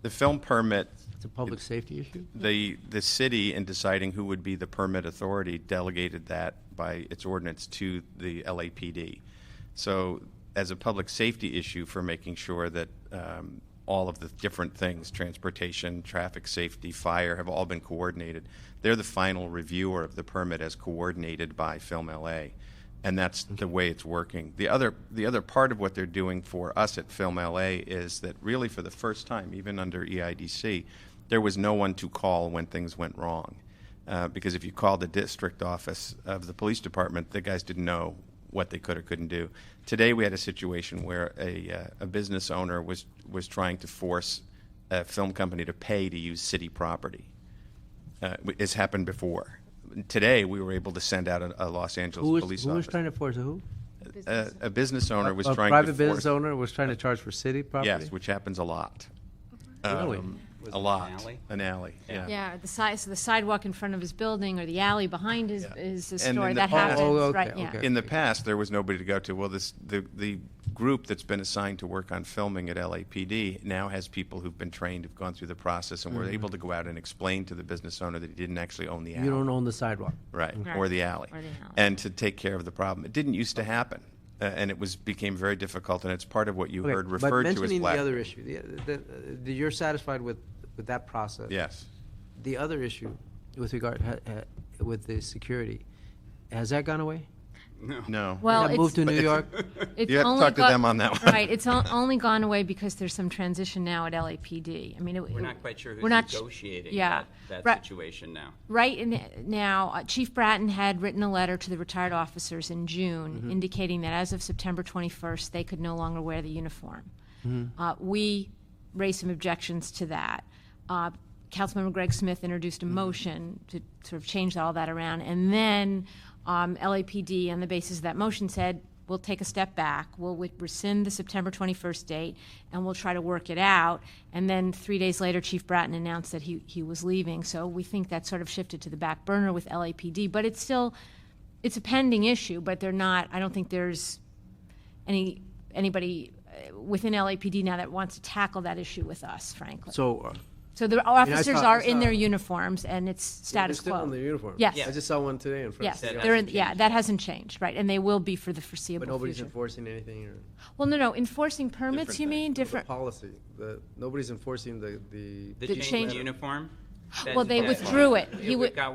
The film permit, It's a public safety issue? the, the city in deciding who would be the permit authority delegated that by its ordinance to the LAPD. So as a public safety issue for making sure that um, all of the different things, transportation, traffic safety, fire, have all been coordinated, they're the final reviewer of the permit as coordinated by Film LA and that's the way it's working. The other the other part of what they're doing for us at Film LA is that really for the first time, even under E EIDC, there was no one to call when things went wrong, uh, because if you called the district office of the police department, the guys didn't know what they could or couldn't do. Today we had a situation where a uh, a business owner was was trying to force a film company to pay to use city property. Uh, it's happened before. Today, we were able to send out a, a Los Angeles Who was, police who was officer trying to force who? a, a business owner was a trying private to force, business owner was trying to charge for city property. Yes, which happens a lot. Um, Really? a lot. alley? An alley, yeah. Yeah, the side, so the sidewalk in front of his building or the alley behind his, is a then store the- that Oh, happens, okay, right, yeah. okay. In the past, there was nobody to go to. Well, this the the group that's been assigned to work on filming at LAPD now has people who've been trained, who've gone through the process, and were able to go out and explain to the business owner that he didn't actually own the alley. Mm-hmm. You don't own the sidewalk. right, Right. or the alley, Or the alley. and to take care of the problem. It didn't used to happen, uh, and it was became very difficult, and it's part of what you Okay, heard referred But to as mentioning the black. other issue, the- the, the, you're satisfied with, with that process? yes, The other issue with regard, ha- ha- with the security, has that gone away? no. Well, That moved to it's, New York? it's You have to only talk to got- them on that one. Right, it's on- only gone away because there's some transition now at LAPD. I mean, it- We're not quite sure who's we're not sh- negotiating yeah. that, that Right. situation now. Right in, now, uh, Chief Bratton had written a letter to the retired officers in June Mm-hmm. indicating that as of September 21st, they could no longer wear the uniform. Uh, we raised some objections to that. Uh, Councilmember Greg Smith introduced a motion to sort of change all that around, and then um, LAPD, on the basis of that motion, said we'll take a step back, we'll wi- rescind the September 21st date, and we'll try to work it out. And then three days later, Chief Bratton announced that he, he was leaving. So we think that sort of shifted to the back burner with LAPD, but it's still, it's a pending issue, but they're not, I don't think there's any, anybody uh, within LAPD now that wants to tackle that issue with us, frankly. So. uh, So the mean, I officers saw- are I in their saw- uniforms, and it's they're status still in their quo. uniform. Yes. I just saw one today in front of Yes, the city. they're in, hasn't yeah, changed. that hasn't changed, right, and they will be for the But foreseeable nobody's future. enforcing anything or. Well, no, no, enforcing permits, you mean, The different, policy, the, nobody's enforcing the, the. The The change change- in uniform? well, That's- they that's- withdrew it. He It wi- got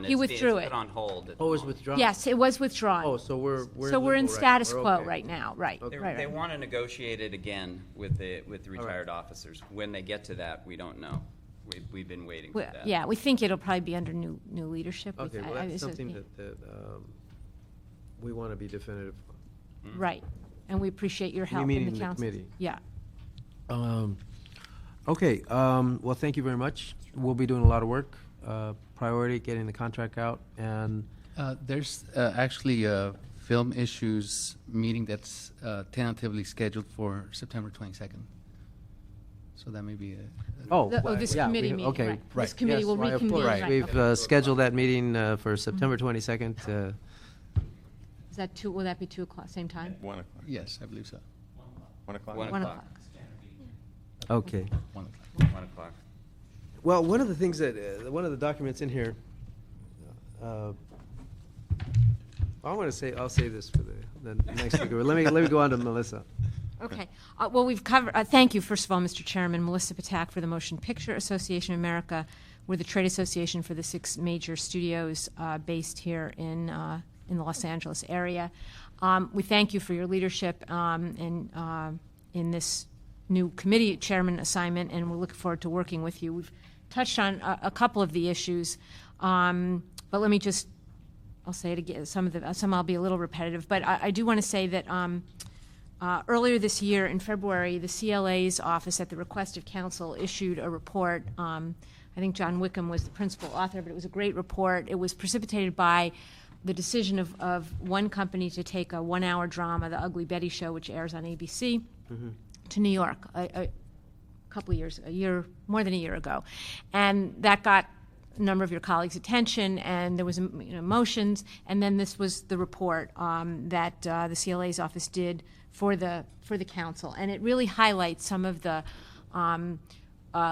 he It's being- withdrew It's it. put on hold. at the Oh, it's moment. withdrawn? yes, it was withdrawn. Oh, so we're, we're. So we're in limbo right now. status We're quo okay. right now, right, Okay. They- right, They right. want to negotiate it again with the, with the right. retired officers. When they get to that, we don't know. We, we've been waiting for We- that. Yeah, we think it'll probably be under new, new leadership. We- Okay, well, I- I- that's so- something yeah, that, that, um, we want to be definitive on. Right, and we appreciate your help mean in in the the council. committee? Yeah. Um, okay, um, well, thank you very much. We'll be doing a lot of work, uh, priority, getting the contract out, and Uh, There's uh, actually a film issues meeting that's uh, tentatively scheduled for September 22nd. So that may be a. oh. The- Oh, well, this yeah, we- committee meeting, okay, right. This Right. committee yes, will why, of reconvene, course. Right. right. We've okay. uh, scheduled that meeting uh, for September 22nd. Uh, Is that two, will that be 2 o'clock, same time? One o'clock. Yes, I believe so. One o'clock. One 1 o'clock. o'clock. okay. One o'clock. One o'clock. Well, one of the things that uh, one of the documents in here, uh, I want to say I'll save this for the, the next speaker. Let me let me go on to Melissa. Okay. Uh, Well, we've covered, uh, thank you, first of all, Mr. Chairman, Melissa Patak for the Motion Picture Association of America. We're the trade association for the six major studios uh, based here in, uh, in the Los Angeles area. Um, We thank you for your leadership um, in, uh, in this new committee chairman assignment, and we're looking forward to working with you. We've touched on a a couple of the issues, um, but let me just I'll say it again. Some of the some I'll be a little repetitive, but I, I do want to say that um, uh, earlier this year in February, the CLA's office, at the request of council, issued a report. Um, I think John Wickham was the principal author, but it was a great report. It was precipitated by the decision of, of one company to take a one-hour drama, The Ugly Betty Show, which airs on ABC, to New York. A, a, couple of years, a year, more than a year ago. And that got a number of your colleagues' attention, and there was, um, you know, motions, and then this was the report um, that uh, the CLA's office did for the, for the council. And it really highlights some of the um,